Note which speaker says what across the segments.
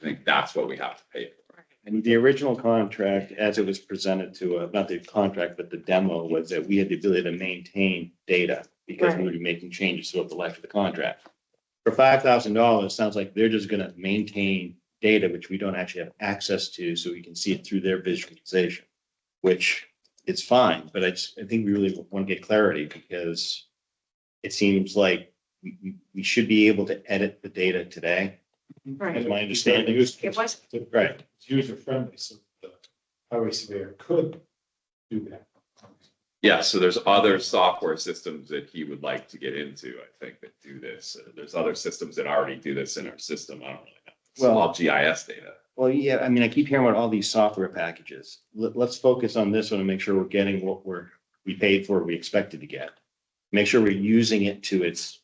Speaker 1: I think that's what we have to pay for.
Speaker 2: And the original contract, as it was presented to, uh, not the contract, but the demo was that we had the ability to maintain data because we would be making changes throughout the life of the contract. For five thousand dollars, sounds like they're just gonna maintain data which we don't actually have access to, so we can see it through their visualization. Which is fine, but I just, I think we really want to get clarity because it seems like we, we, we should be able to edit the data today, is
Speaker 3: Right,
Speaker 2: my understanding.
Speaker 3: it was,
Speaker 2: Right.
Speaker 4: It's user friendly, so the highway surveyor could do that.
Speaker 1: Yeah, so there's other software systems that he would like to get into, I think, that do this. Uh, There's other systems that already do this in our system. I don't really know. It's
Speaker 2: Well-
Speaker 1: all GIS data.
Speaker 2: Well, yeah, I mean, I keep hearing about all these software packages. Let, let's focus on this one and make sure we're getting what we're, we paid for, we expected to get. Make sure we're using it to its,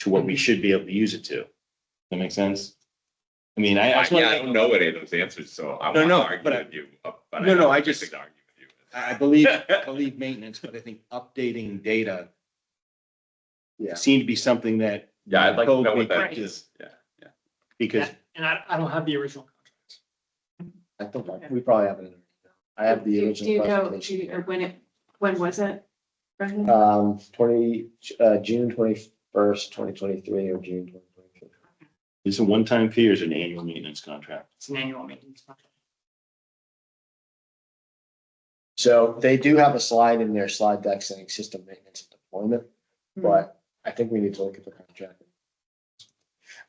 Speaker 2: to what we
Speaker 1: Mm-hmm.
Speaker 2: should be able to use it to. That make sense? I mean, I, I
Speaker 1: I
Speaker 2: just
Speaker 1: yeah, I don't
Speaker 2: wanna,
Speaker 1: know any of those answers, so I
Speaker 2: No,
Speaker 1: won't
Speaker 2: no,
Speaker 1: argue
Speaker 2: but I-
Speaker 1: with you. uh, but
Speaker 2: No, no,
Speaker 1: don't
Speaker 2: I
Speaker 1: think
Speaker 2: just-
Speaker 1: could argue with you.
Speaker 2: I believe, I believe maintenance, but I think updating data
Speaker 4: Yeah.
Speaker 2: seemed to be something that,
Speaker 1: Yeah, I'd like to know what that
Speaker 3: Right.
Speaker 1: is. Yeah, yeah.
Speaker 2: because
Speaker 5: And I, I don't have the original contract.
Speaker 4: I think we probably have it. I have
Speaker 3: do
Speaker 4: the
Speaker 3: you do you
Speaker 4: original
Speaker 3: know, do you- or
Speaker 4: presentation.
Speaker 3: when it, when was it?
Speaker 2: Uh,
Speaker 3: Brendan?
Speaker 4: Um, twenty, uh, June twenty-first, twenty twenty-three or June twenty twenty-three.
Speaker 2: this is a one-time fee or is it an annual maintenance contract?
Speaker 5: It's an annual maintenance contract.
Speaker 4: So they do have a slide in their slide deck saying system maintenance and deployment,
Speaker 3: Hmm.
Speaker 4: but I think we need to look at the contract.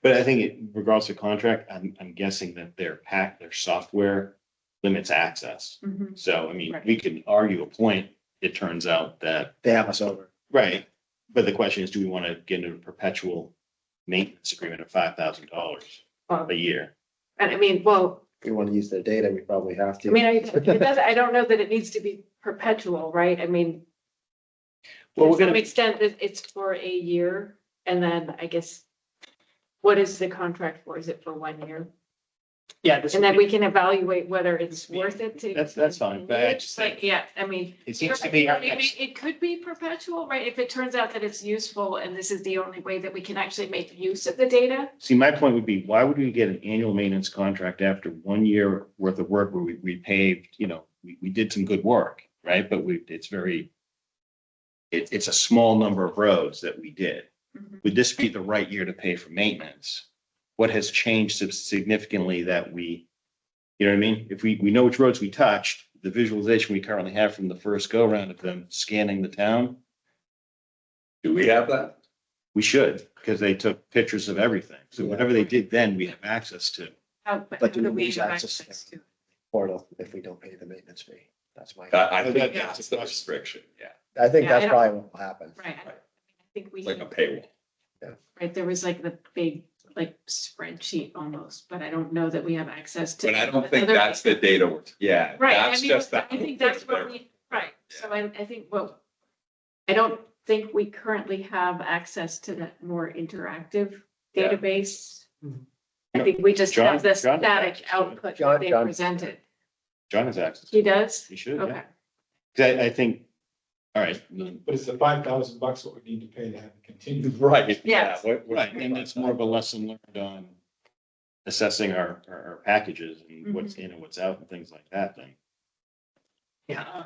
Speaker 2: But I think it- regardless of contract, I'm, I'm guessing that their pack, their software limits access.
Speaker 3: Mhm.
Speaker 2: So, I mean,
Speaker 3: Right.
Speaker 2: we can argue a point. It turns out that,
Speaker 4: They have us over.
Speaker 2: right, but the question is, do we want to get into a perpetual maintenance agreement of five thousand dollars
Speaker 3: Well,
Speaker 2: a year?
Speaker 3: And I mean, well,
Speaker 4: If we want to use their data, we probably have
Speaker 3: I
Speaker 4: to.
Speaker 3: mean, I, it does, I don't know that it needs to be perpetual, right? I mean,
Speaker 2: Well, we're
Speaker 3: to some
Speaker 2: gonna,
Speaker 3: extent, it- it's for a year, and then I guess, what is the contract for? Is it for one year?
Speaker 5: Yeah, this
Speaker 3: And then
Speaker 5: would be,
Speaker 3: we can evaluate whether it's worth it to.
Speaker 2: That's- that's fine, but I just
Speaker 3: Like, yeah, I mean.
Speaker 2: it seems to be our
Speaker 3: I mean,
Speaker 2: next,
Speaker 3: It could be perpetual, right? If it turns out that it's useful and this is the only way that we can actually make use of the data.
Speaker 2: see, my point would be, why would we get an annual maintenance contract after one year worth of work where we, we paved, you know, we, we did some good work, right? But we, it's very, it, it's a small number of roads that we did.
Speaker 3: Mm-hmm.
Speaker 2: would this be the right year to pay for maintenance? What has changed sub- significantly that we, you know what I mean? If we, we know which roads we touched, the visualization we currently have from the first go round of them scanning the town,
Speaker 1: Do we have that?
Speaker 2: we should, because they took pictures of everything. So whatever they did then, we have access to.
Speaker 3: How, how
Speaker 4: But do
Speaker 3: do
Speaker 4: we
Speaker 3: we
Speaker 4: lose
Speaker 3: have
Speaker 4: access
Speaker 3: access to?
Speaker 4: to
Speaker 3: it?
Speaker 4: Portal if we don't pay the maintenance fee. That's my,
Speaker 1: That- I think
Speaker 2: That-
Speaker 1: that's the restriction, yeah.
Speaker 4: I think
Speaker 3: Yeah, I
Speaker 4: that's
Speaker 3: don't-
Speaker 4: probably what will happen.
Speaker 3: Right. I I think we,
Speaker 1: It's like a
Speaker 3: had-
Speaker 1: paywall.
Speaker 3: right, there was like the big, like spreadsheet almost, but I don't know that we have access to.
Speaker 1: But I don't think
Speaker 3: other-
Speaker 1: that's the data, we're yeah,
Speaker 3: Right, I
Speaker 1: that's
Speaker 3: mean,
Speaker 1: just the.
Speaker 3: I think that's what we, right, so I, I think what, I don't think we currently have access to that more interactive
Speaker 1: Yeah.
Speaker 3: database.
Speaker 2: Mm-hmm.
Speaker 5: Mhm.
Speaker 3: I think we just have the
Speaker 2: John- John-
Speaker 3: static output
Speaker 4: John-
Speaker 3: that they
Speaker 4: John-
Speaker 3: presented.
Speaker 2: John has access.
Speaker 3: He does?
Speaker 2: He should, yeah.
Speaker 3: Okay,
Speaker 2: 'Cause I, I think, all right. then-
Speaker 6: But it's the five thousand bucks what we need to pay to have it continue.
Speaker 1: Right.
Speaker 3: Yes.
Speaker 1: yeah, what- what-
Speaker 2: Right, and it's more of a lesson learned on assessing our, our, our packages
Speaker 3: Mm-hmm.
Speaker 2: and what's in and what's out and things like that then.
Speaker 5: yeah.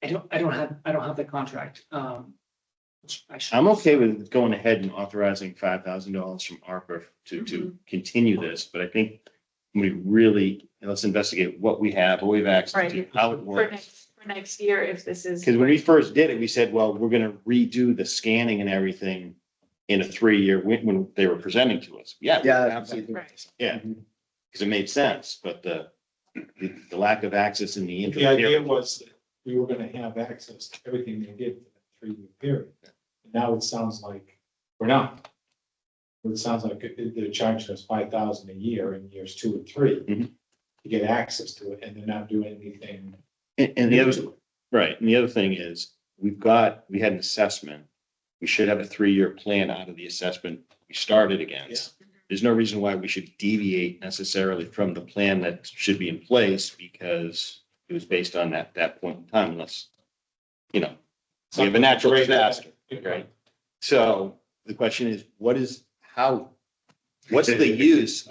Speaker 5: I don't, I don't have, I don't have the contract, um. which I should-
Speaker 2: I'm okay with going ahead and authorizing five thousand dollars from ARPA to,
Speaker 3: Mm-hmm.
Speaker 2: to continue this, but I think we really, let's investigate what we have, what we've access to,
Speaker 3: Right.
Speaker 2: how it
Speaker 3: for
Speaker 2: works.
Speaker 3: next, for next year, if this is.
Speaker 2: Because when we first did it, we said, well, we're gonna redo the scanning and everything in a three-year, when, when they were presenting to us. Yeah.
Speaker 4: Yeah.
Speaker 2: Absolutely,
Speaker 3: Right.
Speaker 2: yeah, because it made sense, but the, the the lack of access in the
Speaker 6: The idea
Speaker 2: interim.
Speaker 6: was that we were gonna have access to everything they did for that three-year period. And Now it sounds like we're not. It sounds like it- they're charging us five thousand a year in years two and three
Speaker 3: Mm-hmm.
Speaker 2: Mhm.
Speaker 6: to get access to it, and they're not doing anything.
Speaker 2: And, and the
Speaker 6: new
Speaker 2: other,
Speaker 6: to it.
Speaker 2: Right, and the other thing is, we've got, we had an assessment. We should have a three-year plan out of the assessment we started against. There's no reason why we should deviate necessarily from the plan that should be in place because it was based on that, that point in time unless, you know, we have a natural disaster. So the question is, what is, how, what's the use